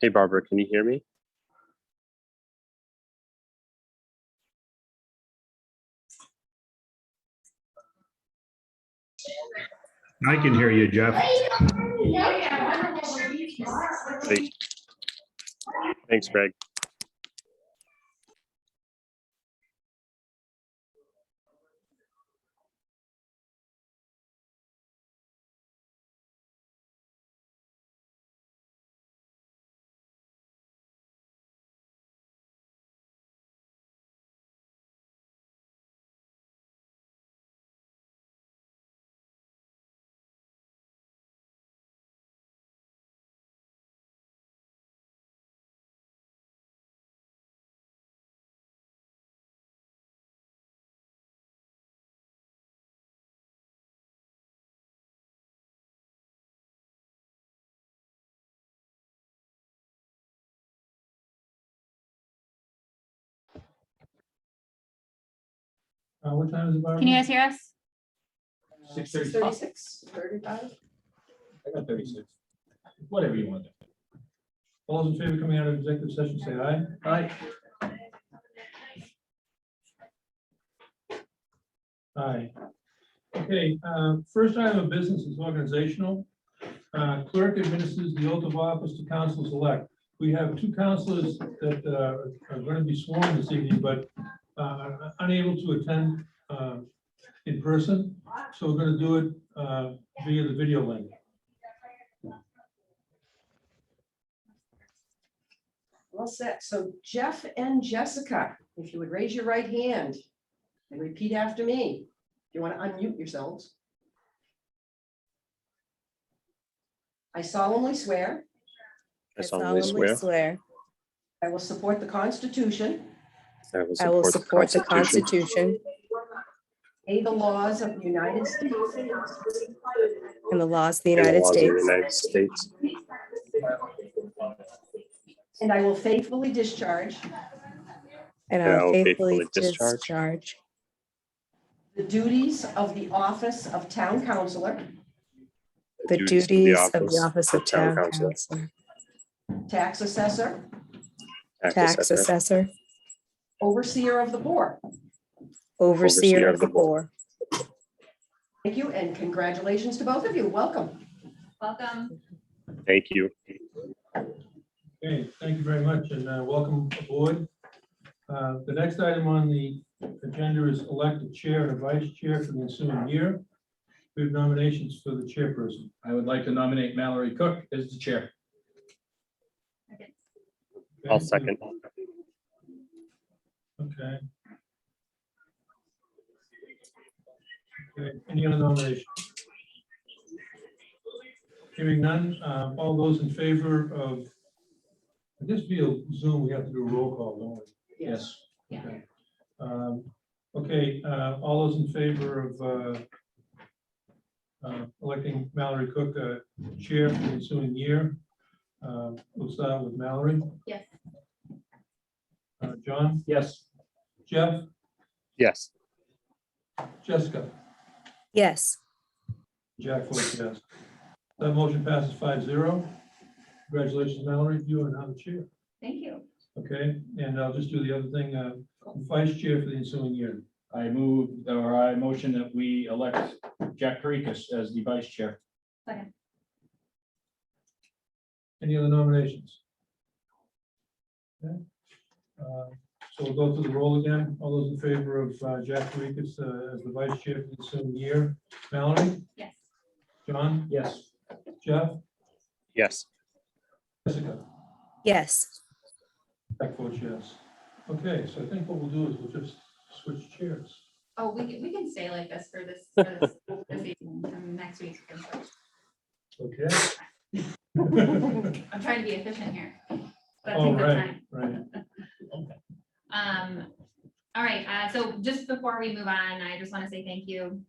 Hey, Barbara, can you hear me? I can hear you, Jeff. Great. Thanks, Greg. Uh, what time is it? Barbara? Can you guys hear us? Six Six thirty, thirty-six, thirty-five? I got thirty-six. Whatever you want. to do. All those in favor coming out of executive session, say aye. Aye. Aye. Okay, uh, first item of business is organizational. Uh, Clerk administers the oath of office to councilors elect. We have two councilors that uh, are going to be sworn this evening, but uh, are unable to attend uh, in person. So we're going to do it uh, via the video link. Well set. So Jeff and Jessica, if you would raise your right hand and repeat after me. If you want to unmute yourselves. I solemnly swear I solemnly swear I will support the Constitution, that I will I will support support the the Constitution Constitution A, the laws of the United States and the laws of the and the United laws of the States, United States, and I will faithfully discharge and and I will faithfully discharge discharge the duties of the office of Town Councilor, the duties of the office of town council, council, Tax Assessor, tax assessor, Overseer of the Board. overseer of the board. Thank you and congratulations to both of you. Welcome. Welcome. Thank you. Okay, thank you very much and uh, welcome aboard. Uh, The next item on the agenda is elect a chair and a vice chair for the ensuing year. We have nominations for the chairperson. I would like to nominate Mallory Cook as the chair. I'll second. Okay. Okay, Any other nominations? Hearing none, uh, all those in favor of, I guess via Zoom, we have to do a roll call, don't we? Yes. Yeah. Okay. Um, Okay, uh, all those in favor of uh, uh, electing Mallory Cook uh, Chair for the ensuing year? uh, We'll start with Mallory. Yes. Uh, John, Yes. Jeff, Yes, Jessica, Yes, Jack votes yes. That motion passes five zero. Congratulations, Mallory, you are now the chair. Thank you. Okay, and I'll just do the other thing, uh, vice chair for the ensuing year. I move, or I motion that we elect Jack Karikas as the vice chair. Second. Any other nominations? Okay, uh, So we'll go through the roll again. All those in favor of uh, Jack Karikas uh, as the vice chair for the ensuing year. Mallory, Yes. John, Yes. Jeff, yes, Jessica, yes, Jack votes yes. Okay, so I think what we'll do is we'll just switch chairs. Oh, we can, we can stay like this for this, for this, this evening, um, next week. Okay? I'm trying to be efficient here. but All take the time. right, right. Um, all right, uh, so just before we move on, I just want to say thank you